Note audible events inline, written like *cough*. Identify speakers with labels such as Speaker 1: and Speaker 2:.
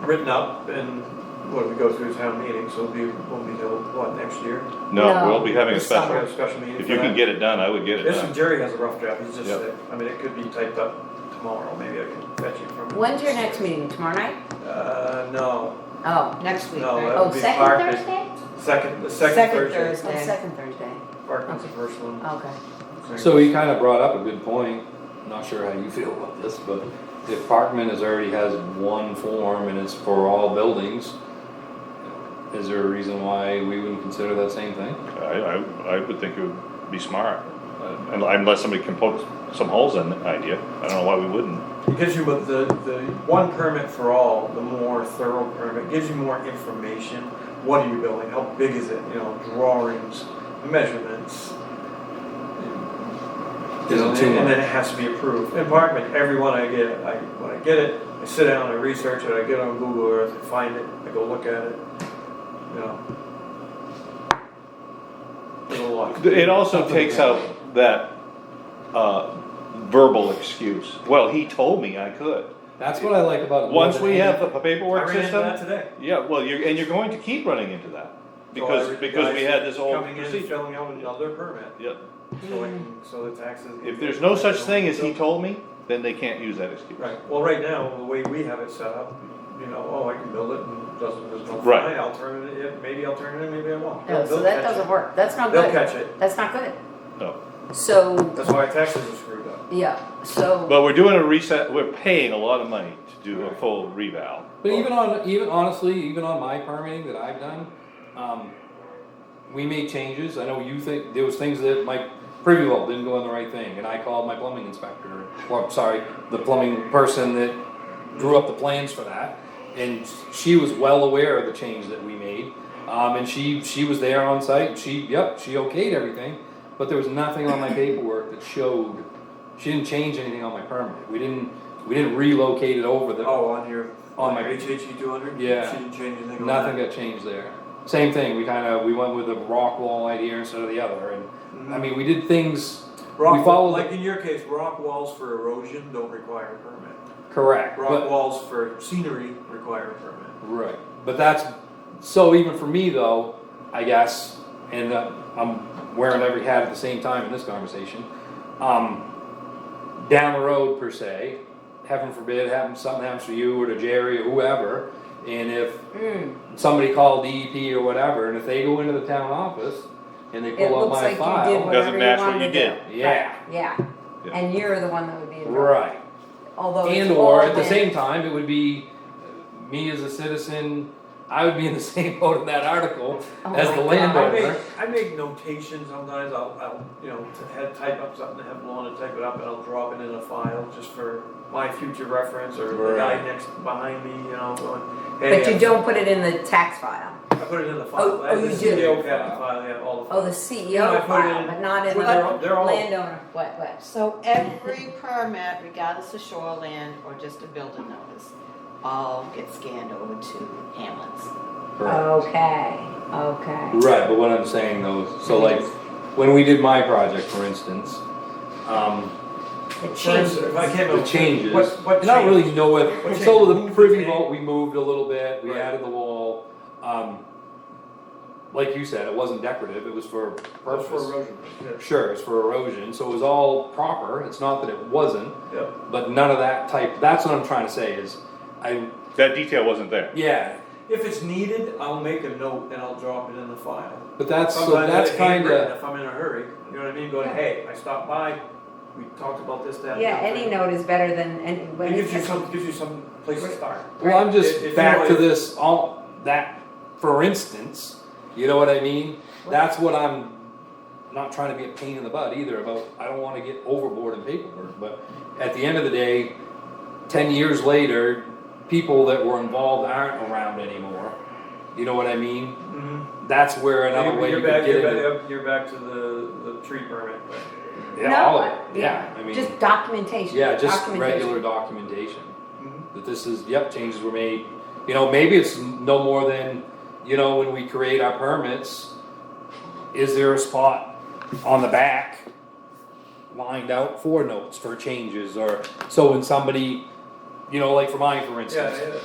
Speaker 1: written up and what we go through town meeting, so it'll be, won't be till, what, next year?
Speaker 2: No,
Speaker 3: No,
Speaker 2: we'll be having a
Speaker 3: it's
Speaker 1: We
Speaker 2: special.
Speaker 1: have a special meeting
Speaker 2: If
Speaker 1: for
Speaker 2: you can
Speaker 1: that.
Speaker 2: get it done, I would get it
Speaker 1: This
Speaker 2: done.
Speaker 1: one, Jerry has a rough draft, he's just,
Speaker 2: Yep.
Speaker 1: I mean, it could be typed up tomorrow, maybe I can fetch it from.
Speaker 3: When's your next meeting? Tomorrow night?
Speaker 1: Uh, no,
Speaker 3: Oh, next week.
Speaker 1: No,
Speaker 3: right?
Speaker 1: that
Speaker 3: Oh,
Speaker 1: would be
Speaker 3: second
Speaker 1: Park.
Speaker 3: Thursday?
Speaker 1: second, the second
Speaker 4: Second
Speaker 1: Thursday,
Speaker 3: Oh,
Speaker 4: Thursday.
Speaker 3: second Thursday.
Speaker 1: Parkman's the first one.
Speaker 3: Okay.
Speaker 5: So he kind of brought up a good point. Not sure how you feel about this, but if Parkman has already has one form and it's for all buildings, is there a reason why we wouldn't consider that same thing?
Speaker 2: I, I, I would think it would be smart. Uh, Unless somebody can poke some holes in the idea. I don't know why we wouldn't.
Speaker 1: It gives you with the, the one permit for all, the more thorough permit, gives you more information. What are you building? How big is it? You know, drawings, measurements. You know,
Speaker 5: Isn't too
Speaker 1: And then
Speaker 5: much.
Speaker 1: it has to be approved. In Parkman, every one I get, I, when I get it, I sit down, I research it, I get on Google Earth, I find it, I go look at it, you know. There's a lot.
Speaker 2: It also takes out that, uh, verbal excuse. Well, he told me I could.
Speaker 5: That's what I like about it. more
Speaker 2: Once
Speaker 5: than
Speaker 2: we
Speaker 5: any-
Speaker 2: have the
Speaker 1: I
Speaker 2: paperwork
Speaker 1: ran into
Speaker 2: system.
Speaker 1: that today.
Speaker 2: Yeah, well, you're, and you're going to keep running into that,
Speaker 1: So I-
Speaker 2: because, because we had this whole
Speaker 1: Coming in and
Speaker 2: procedure.
Speaker 1: filling out another permit.
Speaker 2: Yeah,
Speaker 1: So, I can- so the taxes.
Speaker 2: if there's no such thing as he told me, then they can't use that excuse.
Speaker 1: Right, well, right now, the way we have it set up, you know, oh, I can build it and it doesn't, there's no
Speaker 2: Right.
Speaker 1: fine, I'll turn it, in, maybe I'll turn it in, maybe I won't.
Speaker 3: No,
Speaker 1: They'll
Speaker 3: so that
Speaker 1: catch it.
Speaker 3: doesn't work. That's not
Speaker 1: They'll
Speaker 3: good.
Speaker 1: catch it,
Speaker 3: That's not good.
Speaker 2: No,
Speaker 3: So,
Speaker 1: that's why taxes are screwed up.
Speaker 3: yeah, so,
Speaker 2: but we're doing a reset, we're paying a lot of money to do a full reval.
Speaker 5: But even on, even honestly, even on my permitting that I've done, um, we made changes, I know you think, there was things that my privy vault didn't go on the right thing, and I called my plumbing inspector, or, I'm sorry, the plumbing person that drew up the plans for that, and she was well aware of the change that we made, um, and she, she was there on site, and she, yep, she okayed everything, but there was nothing on my paperwork that showed, she didn't change anything on my permit, we didn't, we didn't relocate it over the,
Speaker 1: Oh, on your,
Speaker 5: On
Speaker 1: on
Speaker 5: my-
Speaker 1: your HHE two hundred?
Speaker 5: Yeah.
Speaker 1: She didn't change anything on that?
Speaker 5: Nothing got changed there. Same thing, we kinda, we went with the rock wall idea instead of the other, and, I mean, we did things, we
Speaker 1: Mm-hmm. Rock,
Speaker 5: followed
Speaker 1: like
Speaker 5: the-
Speaker 1: in your case, rock walls for erosion don't require a permit.
Speaker 5: correct,
Speaker 1: Rock
Speaker 5: but,
Speaker 1: walls for scenery require a permit.
Speaker 5: right, but that's, so even for me though, I guess, and uh, I'm wearing every hat at the same time in this conversation, um, down the road per se, heaven forbid, happen, something happens to you or to Jerry or whoever, and if
Speaker 3: mm,
Speaker 5: somebody called DEP or whatever, and if they go into the town office and they
Speaker 3: it
Speaker 5: pull up
Speaker 3: looks
Speaker 5: my
Speaker 3: like you did
Speaker 5: file,
Speaker 3: whatever
Speaker 2: Doesn't match
Speaker 3: you
Speaker 2: what
Speaker 3: wanted to
Speaker 2: you
Speaker 3: do.
Speaker 2: did.
Speaker 5: yeah.
Speaker 3: Right, Yeah,
Speaker 2: Yeah.
Speaker 3: and you're the one that would be involved,
Speaker 5: Right,
Speaker 3: although Oh, it's
Speaker 5: and
Speaker 3: all
Speaker 5: or at the
Speaker 3: been-
Speaker 5: same time, it would be uh, me as a citizen, I would be in the *laughs* same boat in that article
Speaker 3: Oh
Speaker 5: as
Speaker 3: my God.
Speaker 5: the
Speaker 1: I
Speaker 5: landowner.
Speaker 1: make, I make notations sometimes, I'll, I'll, you know, t- head type up something, have Lorna type it up, and I'll drop it in a file just for my future reference, or the guy
Speaker 5: Right.
Speaker 1: next, behind me, you know, going, hey.
Speaker 3: But you
Speaker 1: I-
Speaker 3: don't put it in the tax file.
Speaker 1: I put it in the file,
Speaker 3: Oh,
Speaker 1: I have
Speaker 3: oh,
Speaker 1: the
Speaker 3: you do.
Speaker 1: CEO cabinet file, I have all the.
Speaker 3: Oh, the
Speaker 1: files.
Speaker 3: CEO
Speaker 1: I put it
Speaker 3: file,
Speaker 1: in-
Speaker 3: but not in
Speaker 1: Well, they're all-
Speaker 3: the
Speaker 1: they're all-
Speaker 3: landowner, what, what?
Speaker 4: So every permit, regardless of shoreland or just a building notice, all get scanned over to Hamlin's.
Speaker 5: Right,
Speaker 3: Oh. Okay, okay.
Speaker 5: Right, but what I'm saying though, is- so like, when we did my project, for instance, um,
Speaker 3: It
Speaker 1: For instance,
Speaker 3: changes.
Speaker 1: if I came up
Speaker 5: the
Speaker 1: with-
Speaker 5: changes,
Speaker 1: What, what
Speaker 5: and I don't really
Speaker 1: changes?
Speaker 5: know
Speaker 1: What
Speaker 5: it, so
Speaker 1: changes?
Speaker 5: the privy vault, we moved a little bit, we
Speaker 1: Right.
Speaker 5: added the wall, um, like you said, it wasn't decorative, it was for
Speaker 1: That's for
Speaker 5: purpose.
Speaker 1: erosion, yeah,
Speaker 5: Sure, it's for erosion, so it was all proper, it's not that it wasn't,
Speaker 1: yeah.
Speaker 5: but none of that type, that's what I'm trying to say is, I,
Speaker 2: That detail wasn't there.
Speaker 5: yeah,
Speaker 1: If it's needed, I'll make a note and I'll drop it in the file.
Speaker 5: but that's, so
Speaker 1: Sometimes
Speaker 5: that's
Speaker 1: I get handwritten
Speaker 5: kinda,
Speaker 1: If I'm in a hurry, you know what I mean, going,
Speaker 3: Yeah.
Speaker 1: hey, I stopped by, we talked about this, that. and
Speaker 3: Yeah,
Speaker 1: the other."
Speaker 3: any note is better than, any when
Speaker 1: It gives you
Speaker 3: it's,
Speaker 1: some, gives you some place to start.
Speaker 5: well, I'm
Speaker 1: If- if
Speaker 5: just
Speaker 1: you
Speaker 5: back to
Speaker 1: know, if-
Speaker 5: this, all, that, for instance, you know what I mean? That's what I'm, not trying to be a pain in the butt either about, I don't wanna get overboard in paperwork, but at the end of the day, ten years later, people that were involved aren't around anymore, you know what I mean?
Speaker 1: Mhm.
Speaker 5: That's where another
Speaker 1: You're-
Speaker 5: way
Speaker 1: you're
Speaker 5: you
Speaker 1: back-
Speaker 5: could get
Speaker 1: you're
Speaker 5: into.
Speaker 1: back- You're back to the, the tree permit.
Speaker 5: Yeah,
Speaker 3: No,
Speaker 5: all of
Speaker 3: I-
Speaker 5: it. Yeah, I mean,
Speaker 3: just documentation,
Speaker 5: yeah, just
Speaker 3: documentation.
Speaker 5: regular documentation
Speaker 1: Mhm.
Speaker 5: that this is, yep, changes were made. You know, maybe it's no more than, you know, when we create our permits, is there a spot on the back lined out for notes for changes or so when somebody, you know, like for mine, for
Speaker 1: Yeah,
Speaker 5: instance,
Speaker 1: yeah.